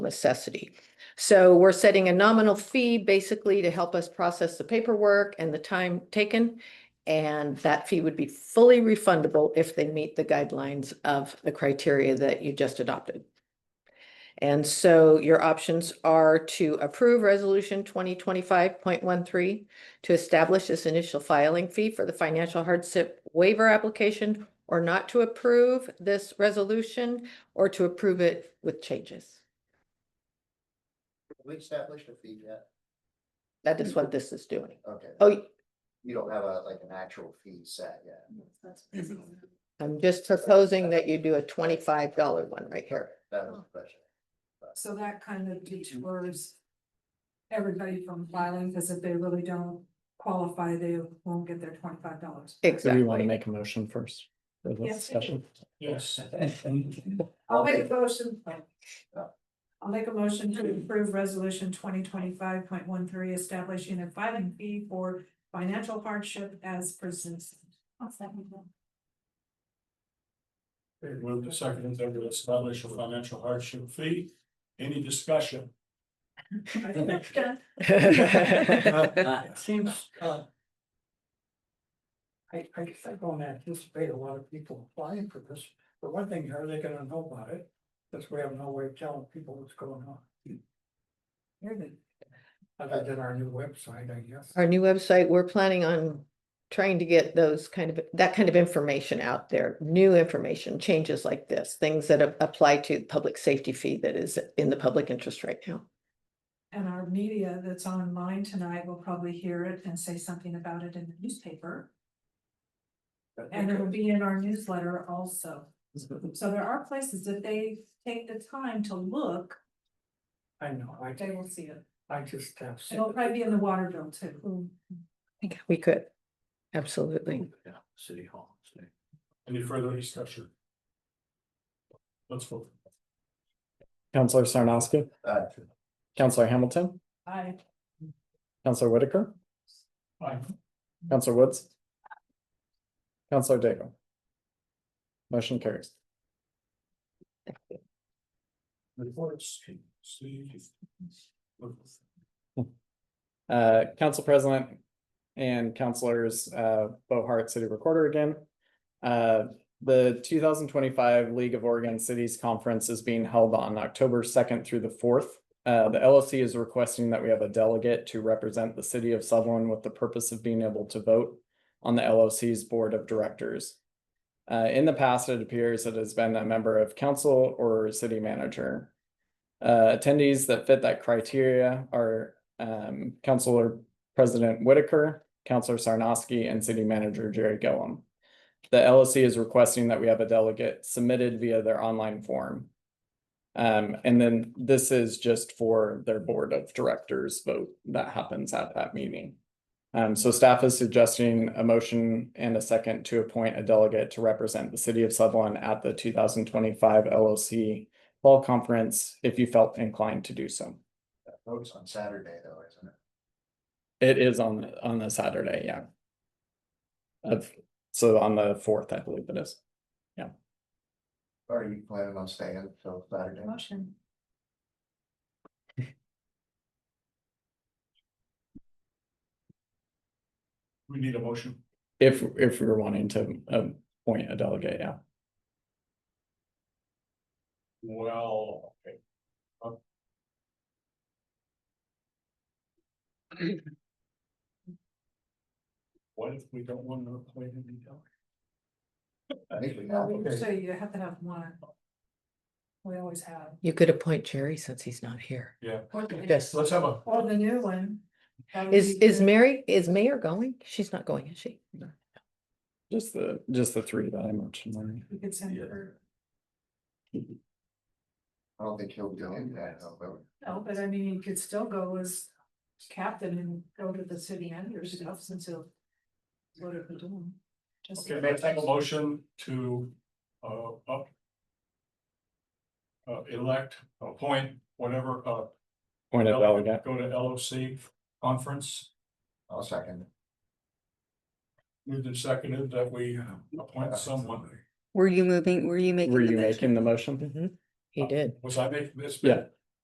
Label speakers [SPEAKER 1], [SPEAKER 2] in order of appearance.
[SPEAKER 1] necessity. So we're setting a nominal fee basically to help us process the paperwork and the time taken. And that fee would be fully refundable if they meet the guidelines of the criteria that you just adopted. And so your options are to approve resolution twenty twenty-five point one three to establish this initial filing fee for the financial hardship waiver application or not to approve this resolution or to approve it with changes.
[SPEAKER 2] We established a fee yet?
[SPEAKER 1] That is what this is doing.
[SPEAKER 2] Okay,
[SPEAKER 1] Oh,
[SPEAKER 2] you don't have a, like an actual fee set yet.
[SPEAKER 1] I'm just proposing that you do a twenty-five dollar one right here.
[SPEAKER 2] That was the question.
[SPEAKER 3] So that kind of deters everybody from filing, because if they really don't qualify, they won't get their twenty-five dollars.
[SPEAKER 4] Do we want to
[SPEAKER 1] Exactly.
[SPEAKER 4] make a motion first? for the
[SPEAKER 3] Yes.
[SPEAKER 4] discussion?
[SPEAKER 5] Yes.
[SPEAKER 3] I'll make a motion.
[SPEAKER 2] Yeah.
[SPEAKER 3] I'll make a motion to approve resolution twenty twenty-five point one three, establishing a filing fee for financial hardship as presented.
[SPEAKER 5] Move the second, then to establish a financial hardship fee. Any discussion? Uh, It seems, uh. I, I guess I don't anticipate a lot of people applying for this. For one thing, how are they gonna know about it? Because we have no way of telling people what's going on. Other than our new website, I guess.
[SPEAKER 1] Our new website, we're planning on trying to get those kind of, that kind of information out there, new information, changes like this, things that a- apply to the public safety fee that is in the public interest right now.
[SPEAKER 3] And our media that's online tonight will probably hear it and say something about it in the newspaper. And it'll be in our newsletter also. So there are places that they take the time to look,
[SPEAKER 5] I know, I,
[SPEAKER 3] they will see it.
[SPEAKER 5] I just have.
[SPEAKER 3] It'll probably be in the water bill too.
[SPEAKER 1] I think We could, absolutely.
[SPEAKER 5] City Hall. Any further discussion? Let's vote.
[SPEAKER 4] Counselor Sarnoski,
[SPEAKER 2] Uh,
[SPEAKER 4] Counselor Hamilton,
[SPEAKER 3] I,
[SPEAKER 4] Counselor Whitaker,
[SPEAKER 5] Aye.
[SPEAKER 4] Counselor Woods. Counselor Daigle. Motion carries.
[SPEAKER 5] Reports. See.
[SPEAKER 4] Uh, Council President and Councilors, uh, Bo Hart, City Recorder again. Uh, the two thousand twenty-five League of Oregon Cities Conference is being held on October second through the fourth. Uh, the LLC is requesting that we have a delegate to represent the city of Sutherland with the purpose of being able to vote on the LLC's Board of Directors. Uh, in the past, it appears it has been a member of council or city manager. Uh, attendees that fit that criteria are um, Councilor President Whitaker, Councilor Sarnoski, and City Manager Jerry Gillum. The LSC is requesting that we have a delegate submitted via their online form. Um, and then this is just for their Board of Directors vote that happens at that meeting. Um, so staff is suggesting a motion and a second to appoint a delegate to represent the city of Sutherland at the two thousand twenty-five LLC Fall Conference if you felt inclined to do so.
[SPEAKER 2] that votes on Saturday though, isn't it?
[SPEAKER 4] It is on, on the Saturday, yeah. Of, so on the fourth, I believe it is.
[SPEAKER 2] Or Are you planning on staying till Saturday?
[SPEAKER 3] motion,
[SPEAKER 5] We need a motion.
[SPEAKER 4] If, if we were wanting to um, appoint a delegate, yeah.
[SPEAKER 5] Well, okay. Uh, What if we don't want to appoint any delegate?
[SPEAKER 2] I think we
[SPEAKER 3] No,
[SPEAKER 2] have.
[SPEAKER 3] we- so you have to have one. We always have.
[SPEAKER 1] You could appoint Jerry since he's not here.
[SPEAKER 3] Or the-
[SPEAKER 1] Yes.
[SPEAKER 5] Let's have a,
[SPEAKER 3] or the new one. that would
[SPEAKER 1] Is,
[SPEAKER 3] be
[SPEAKER 1] is
[SPEAKER 3] good.
[SPEAKER 1] Mary, is Mayor going? She's not going, is she?
[SPEAKER 4] Just the, just the three that I mentioned. Larry.
[SPEAKER 3] We could send
[SPEAKER 5] Yeah.
[SPEAKER 3] her,
[SPEAKER 2] I don't think he'll do it. I don't know.
[SPEAKER 3] no, Oh, but I mean, you could still go as captain and go to the city end or stuff since it'll. What are we doing? Just-
[SPEAKER 5] okay, let's have a motion to, uh, up. Uh, elect, appoint, whatever, uh,
[SPEAKER 4] Appoint a delegate.
[SPEAKER 5] delegate, go to LOC conference.
[SPEAKER 2] I'll second.
[SPEAKER 5] Moved and seconded that we appoint someone.
[SPEAKER 6] Were you moving, were you making?
[SPEAKER 4] Were
[SPEAKER 6] the
[SPEAKER 4] you
[SPEAKER 6] motion?
[SPEAKER 4] making the motion?
[SPEAKER 1] Mm-hmm. He did.
[SPEAKER 5] Was I making this?
[SPEAKER 4] Yeah.